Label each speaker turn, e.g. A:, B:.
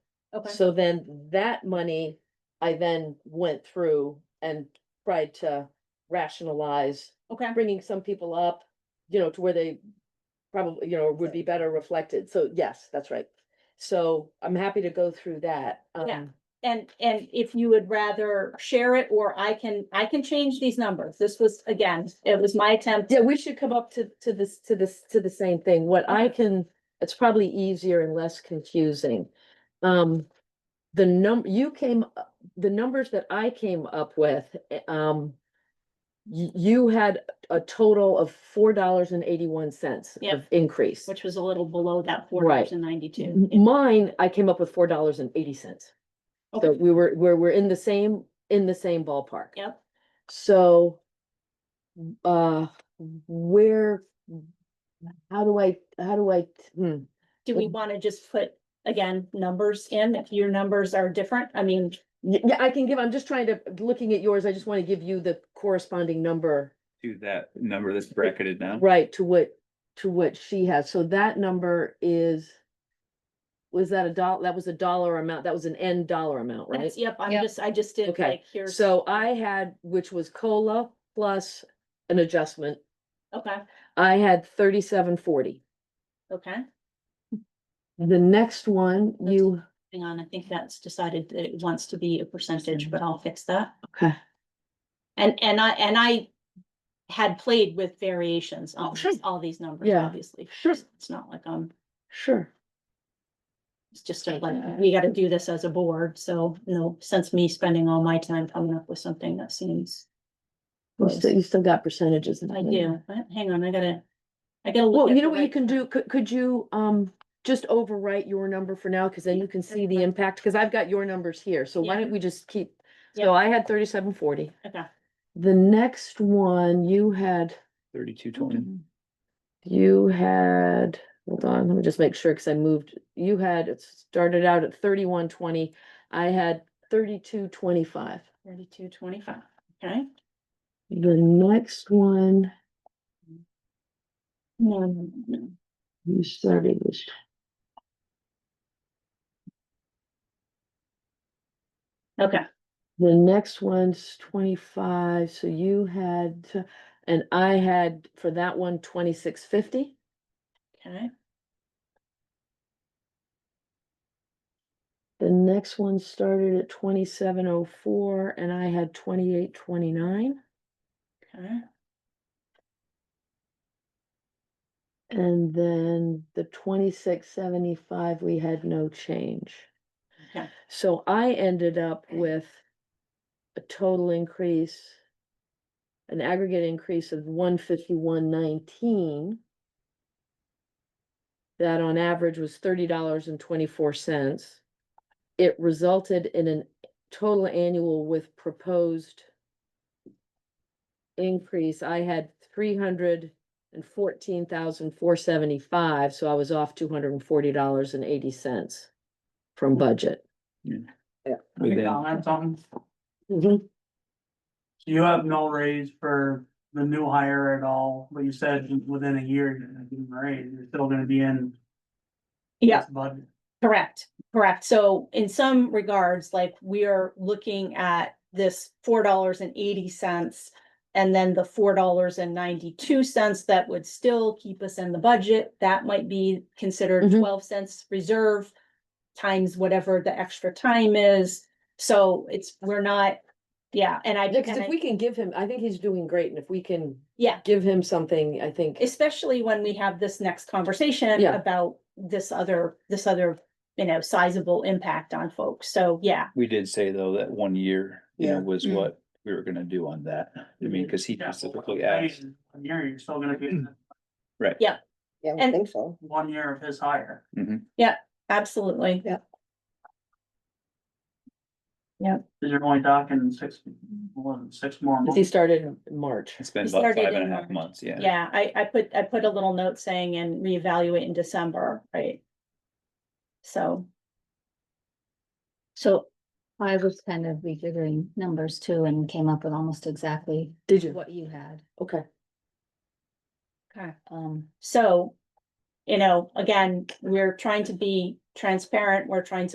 A: Okay.
B: So then that money, I then went through and tried to rationalize,
A: Okay,
B: bringing some people up, you know, to where they probably, you know, would be better reflected. So yes, that's right. So I'm happy to go through that.
A: Yeah.
B: um,
A: and, and if you would rather share it, or I can, I can change these numbers. This was, again, it was my attempt.
B: Yeah, we should come up to, to this, to this, to the same thing. What I can, it's probably easier and less confusing. Um, the num, you came, up- the numbers that I came up with, eh, um, you, you had a total of four dollars and eighty-one cents
A: Yeah.
B: of increase.
A: Which was a little below that four
B: Right. Mm-hmm.
A: dollars and ninety-two.
B: M- Mine, I came up with four dollars and eighty cents. Mm-hmm. So
A: Okay.
B: we were, we're, we're in the same, in the same ballpark.
A: Yep,
B: So, w- uh, where, how do I, how do I, hmm,
A: do we want to just put, again, numbers in, if your numbers are different, I mean,
B: Y- yeah, I can give, I'm just trying to, looking at yours, I just want to give you the corresponding number,
C: to that number that's bracketed now.
B: right, to what, to what she has. So that number is, was that a dollar? that was a dollar amount, that was an N dollar amount, right?
A: that's, yep, I'm
D: Yep.
A: just, I just did
B: Okay,
A: like, here's.
B: So I had, which was COLA plus an adjustment,
A: Okay,
B: I had thirty-seven forty.
A: okay,
B: The next one,
A: That's-
B: you,
A: hang on, I think that's decided that it wants to be a percentage, but I'll fix that.
B: Mm-hmm. okay.
A: And, and I, and I had played with variations on
B: Oh, sure.
A: these- all these numbers,
B: Yeah,
A: obviously.
B: sure.
A: It's not like, um,
B: Sure.
A: it's just a, like,
B: Okay.
A: we gotta do this as a board, so no sense me spending all my time coming up with something that seems.
B: You
A: close.
B: still, you still got percentages. in
A: I
B: there.
A: do, but hang on, I gotta, I gotta. look at
B: Well, you
A: the
B: know what you
A: right-
B: can do, could, could you, um, just overwrite your number for now, cause then you can see the impact, cause I've got your numbers here, so why
A: Yeah.
B: don't we just keep?
A: Yeah.
B: So I had thirty-seven forty,
A: Okay,
B: the next one you had,
C: Thirty-two twenty,
B: you had, hold on, let me just make sure, cause I moved, you had, it started out at thirty-one twenty. I had thirty-two twenty-five,
A: thirty-two, twenty-five, okay?
B: the next one
A: No, no, no.
B: you started was
A: Okay,
B: The next one's twenty-five, so you had, to- and I had for that one twenty-six fifty.
A: okay,
B: The next one started at twenty-seven oh four and I had twenty-eight twenty-nine.
A: okay,
B: And then the twenty-six seventy-five, we had no change.
A: okay.
B: So I ended up with a total increase, an aggregate increase of one fifty-one nineteen. That on average was thirty dollars and twenty-four cents. It resulted in a total annual with proposed increase. I had three hundred and fourteen thousand four seventy-five, so I was off two hundred and forty dollars and eighty cents from
D: Mm-hmm.
B: budget.
C: within
E: comment on?
D: Mm-hmm.
B: Mhm.
E: You have no raise for the new hire at all, but you said within a year, you're gonna give them a raise, you're still gonna be in.
A: Yeah.
E: this Budget.
A: Correct, correct. So in some regards, like we are looking at this four dollars and eighty cents. And then the four dollars and ninety-two cents that would still keep us in the budget, that might be considered
B: Mhm.
A: twelve cents reserve. Times whatever the extra time is, so it's, we're not, yeah, and I.
B: Yeah, 'cause
A: and I-
B: if we can give him, I think he's doing great, and if we can
A: Yeah.
B: give him something, I think.
A: especially when we have this next conversation
B: Yeah.
A: about this other, this other, you know, sizable impact on folks. So, yeah,
C: we did say though that one year, you know,
B: Yeah.
C: was
D: Mm.
C: what we were gonna do on that. I mean, cause he
E: Yeah, but with
C: specifically
E: the raise
C: asked,
E: in One year, you're still gonna be in
D: Yeah, I would
A: And-
D: think so.
E: one year of his hire.
A: absolutely.
E: Cause you're only talking six, more than six more
B: If he
E: months.
B: started in March,
C: it's been
A: We
C: about
A: started
C: five and
A: in
C: a half
A: March.
C: months, yeah.
A: Yeah, I, I put, I put a little note saying and reevaluate in December, right? So.
F: So I was kind of refiguring numbers too and came up with almost exactly
B: did you?
F: what you had.
B: Okay,
A: Okay.
F: Um,
A: So, you know, again, we're trying to be transparent. We're trying to